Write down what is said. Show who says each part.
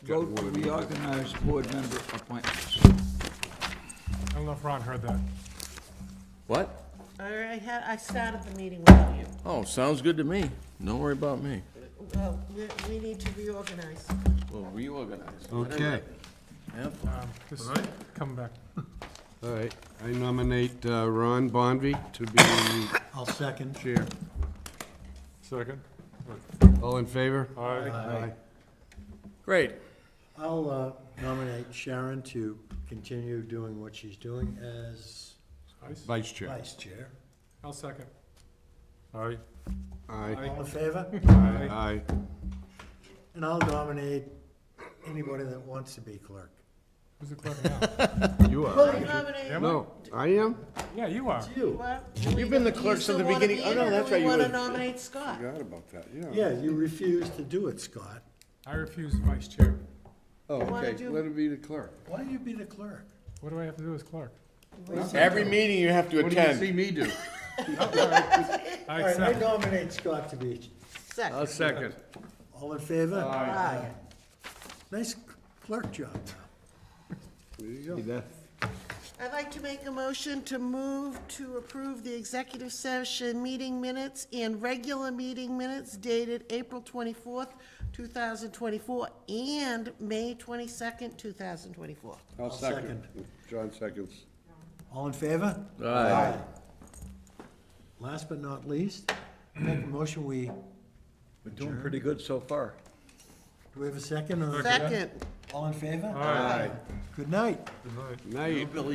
Speaker 1: Vote to reorganize board member appointments.
Speaker 2: I don't know if Ron heard that.
Speaker 3: What?
Speaker 4: I already had, I started the meeting without you.
Speaker 3: Oh, sounds good to me. Don't worry about me.
Speaker 4: Well, we, we need to reorganize.
Speaker 3: We'll reorganize.
Speaker 5: Okay,
Speaker 3: Have fun.
Speaker 2: Um, Just come back.
Speaker 5: all right. I nominate uh, Ron Bonvy to be
Speaker 6: I'll second.
Speaker 5: chair.
Speaker 2: Second.
Speaker 5: All in favor?
Speaker 2: Aye.
Speaker 5: Aye.
Speaker 3: Great.
Speaker 6: I'll uh, nominate Sharon to continue doing what she's doing as
Speaker 5: Vice chair.
Speaker 6: vice chair.
Speaker 2: I'll second. Aye.
Speaker 5: Aye.
Speaker 6: All in favor?
Speaker 5: Aye.
Speaker 6: And I'll nominate anybody that wants to be clerk.
Speaker 2: Who's the clerk now?
Speaker 5: You
Speaker 7: Oh,
Speaker 4: Well,
Speaker 5: are.
Speaker 4: we nominate,
Speaker 2: Am I?
Speaker 5: No, I am?
Speaker 2: Yeah, you are.
Speaker 6: You?
Speaker 4: well.
Speaker 7: You've been the clerk since the beginning. Oh, no, that's right, you
Speaker 4: Do we
Speaker 7: were.
Speaker 4: wanna nominate Scott?
Speaker 5: Forgot about that,
Speaker 6: Yeah, you refuse to do it, Scott.
Speaker 2: I refuse vice chair.
Speaker 5: Oh,
Speaker 4: wanna
Speaker 5: okay,
Speaker 4: do-
Speaker 5: let it be the clerk.
Speaker 6: Why don't you be the clerk?
Speaker 2: What do I have to do as clerk?
Speaker 7: Every meeting you have to
Speaker 5: What do you
Speaker 7: attend.
Speaker 5: see me do?
Speaker 2: I
Speaker 6: All right, I
Speaker 2: accept.
Speaker 6: nominate Scott to be,
Speaker 5: I'll
Speaker 4: Second.
Speaker 5: second.
Speaker 6: all in favor?
Speaker 4: Aye.
Speaker 6: Nice clerk job now.
Speaker 5: There you go.
Speaker 4: I'd like to make a motion to move to approve the executive session meeting minutes and regular meeting minutes dated April twenty-fourth, two thousand twenty-four, and May twenty-second, two thousand twenty-four.
Speaker 5: I'll second.
Speaker 6: second.
Speaker 5: John seconds.
Speaker 6: All in favor? Aye. Last but not least, make a motion, we, do
Speaker 1: We're doing pretty good so far.
Speaker 6: we have a second or?
Speaker 4: Second.
Speaker 6: All in favor?
Speaker 2: Aye.
Speaker 6: Good night.
Speaker 5: Night.